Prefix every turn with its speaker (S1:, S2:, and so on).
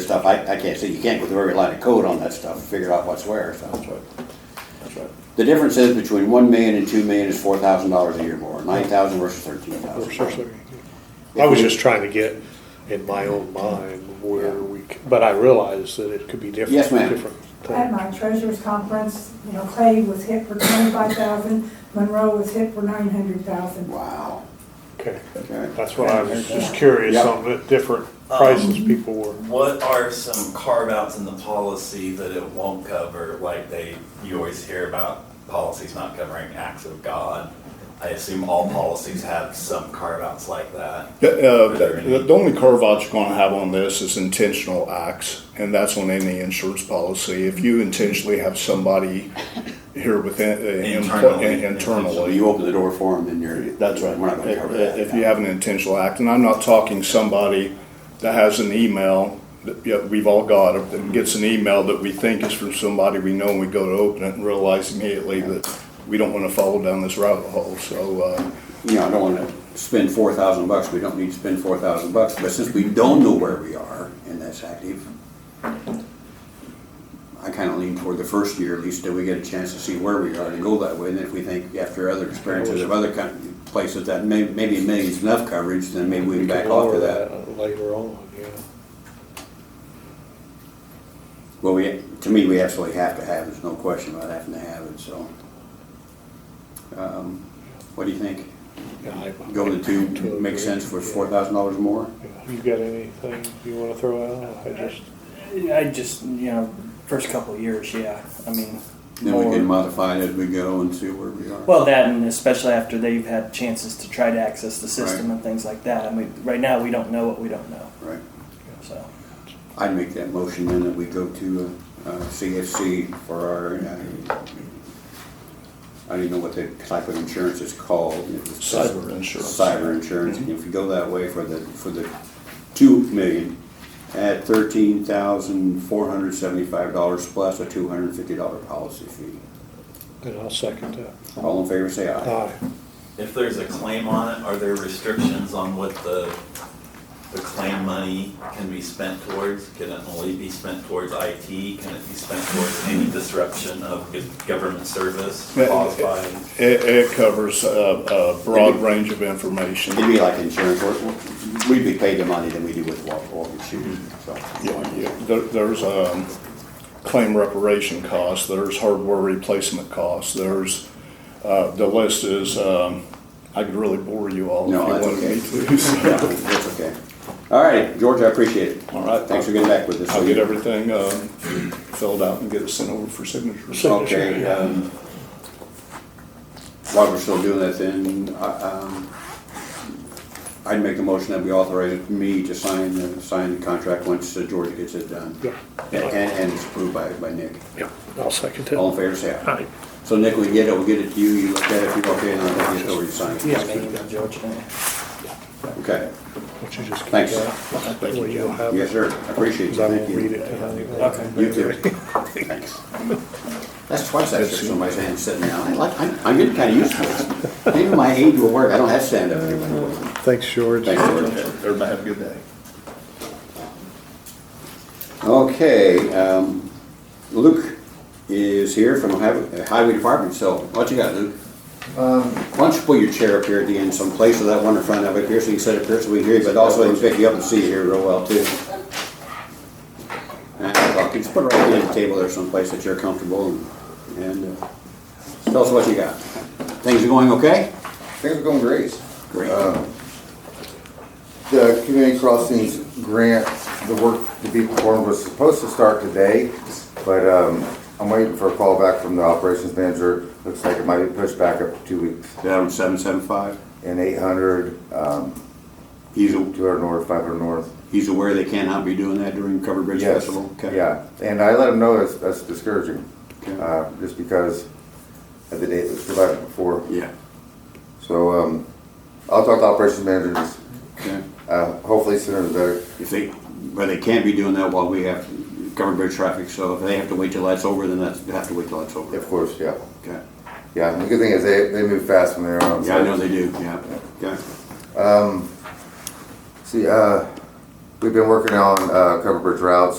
S1: stuff, I, I can't see, you can't go through every line of code on that stuff, and figure out what's where, so.
S2: That's right. That's right.
S1: The difference is between one million and two million is four thousand dollars a year more, nine thousand versus thirteen
S2: Or something.
S1: thousand.
S2: I was just trying to get in my own mind where we, c- but I realized that it could be different.
S1: Yes, ma'am.
S2: different
S3: At
S2: things.
S3: my treasurer's conference, you know, Clay was hit for twenty-five thousand, Monroe was hit for nine hundred thousand.
S1: Wow,
S2: Okay,
S1: okay.
S2: that's what I was just curious
S1: Yeah.
S2: on, the different prices people were.
S4: What are some carve-outs in the policy that it won't cover, like they, you always hear about policies not covering acts of God? I assume all policies have some carve-outs like that.
S5: Yeah, uh, The the only carve out you're gonna have on this is intentional acts, and that's on any insurance policy. If you intentionally have somebody here within, uh, empl-
S4: Internally.
S1: So
S5: internally.
S1: you open the door for them, then you're.
S5: That's right.
S1: We're not gonna cover
S5: If-
S1: that.
S5: If you have an intentional act, and I'm not talking somebody that has an email that, yeah, we've all got, or that gets an email that we think is from somebody we know, and we go to open it and realize immediately that we don't wanna follow down this rabbit hole, so, uh,
S1: You know, I don't wanna spend four thousand bucks, we don't need to spend four thousand bucks, but since we don't know where we are and that's active, I kinda lean toward the first year, at least, that we get a chance to see where we are and go that way, and if we think after other experiences of other kind, places that may, maybe a million's enough coverage, then maybe we can back
S2: could
S1: off
S2: lower
S1: of that.
S2: Later on, yeah.
S1: Well, we, to me, we absolutely have to have, it. there's no question about having to have it, so. Um, What do you think?
S2: Yeah, I-
S1: Go to two, makes sense for four thousand dollars more?
S2: Yeah. You got anything you wanna throw out? I just,
S6: I just, you know, first couple of years, yeah. I mean,
S1: Then we can
S6: more-
S1: modify it as we go and see where we are.
S6: well, that and especially after they've had chances to try to access the system
S1: Right.
S6: and things like that. I mean, right now we don't know what we don't know.
S1: Right.
S6: So,
S1: I'd make that motion then that we go to uh, uh, CFC for our, uh, I don't even know what the type of insurance is called. It was-
S5: Cyber insurance. Mm-hmm.
S1: Cyber insurance. If you go that way for the, for the two million, at thirteen thousand four hundred seventy-five dollars plus a two hundred and fifty dollar policy fee.
S2: and I'll second that.
S1: All in favor, say
S5: Uh.
S1: aye.
S2: Aye.
S4: If there's a claim on it, are there restrictions on what the, the claim money can be spent towards? Can it only be spent towards IT? Can it be spent towards any disruption of government service
S5: Well,
S4: caused by?
S5: It, it covers a, a broad range of information.
S1: It'd be like insurance, We're- we're- we'd be paid the money than we do with what, what we choose, so.
S5: Yeah, yeah. There, there's, um, claim reparation costs, there's hardware replacement costs, there's, uh, the list is, um, I could really bore you all if
S1: No,
S5: you
S1: that's
S5: wanted
S1: okay.
S5: me to.
S1: Yeah,
S5: so.
S1: That's okay. All right, George, I appreciate it.
S5: All right.
S1: Thanks for getting back with us.
S5: I'll get everything, um, filled out and get it sent over for signature.
S1: Okay, um, while we're still doing that then, I- um, I'd make the motion that we authorize me to sign, the- sign the contract once uh, George gets it done.
S2: Yeah.
S1: And, and it's approved by, by Nick.
S2: Yeah, I'll second
S1: All
S2: it.
S1: in favor, say aye.
S2: Aye.
S1: So Nick, we get it, we'll get it to you, you look at it, if you're okay, and I'll get it over to you, sign it.
S6: yeah, maybe the George. uh,
S1: Okay,
S2: Would you just keep
S1: Thanks.
S2: that? Well, you'll have
S1: yes,
S2: it,
S1: sir, I appreciate it,
S2: 'cause I
S1: thank
S2: won't read
S1: you.
S2: it tonight.
S6: Okay.
S1: You too. Thanks. That's twice I've shook somebody's hand sitting down, I like, I'm, I'm getting kinda used to this. Maybe my age will work, I don't have stand-up anymore.
S2: Thanks, George.
S1: Thanks, George.
S5: Everybody have a good day.
S1: Okay, um, Luke is here from Ohio- Highway Department, so what you got, Luke?
S7: Um,
S1: Why don't you pull your chair up here at the end someplace so that one in front of it here, so you can sit up here so we can hear you, but also we can pick you up and see you here real well too. And I'll- just put it right behind the table there someplace that you're comfortable and, and uh, tell us what you got. Things are going okay?
S7: Things are going great.
S1: Great.
S7: Um, The community crossings grant, the work to be performed was supposed to start today, but um, I'm waiting for a call back from the operations manager. Looks like it might be pushed back up to two weeks.
S1: Down seven seven five.
S7: And 800, um,
S1: He's,
S7: 200 north, 500 north.
S1: he's aware they cannot be doing that during Covered Bridge
S7: Yes,
S1: Festival? Okay.
S7: Yeah, and I let them know that's- that's discouraging,
S1: Okay.
S7: uh, just because of the date that was provided before.
S1: Yeah,
S7: So um, I'll talk to operations managers,
S1: okay.
S7: uh, hopefully sooner the better.
S1: If they, but they can't be doing that while we have covered bridge traffic, so if they have to wait till that's over, then that's, they have to wait till that's over.
S7: Of course, yeah.
S1: Okay.
S7: Yeah, and the good thing is they, they move fast when they're on. Um,
S1: Yeah, I know
S7: site.
S1: they do, yeah, okay.
S7: See, uh, we've been working on, uh, cover bridge routes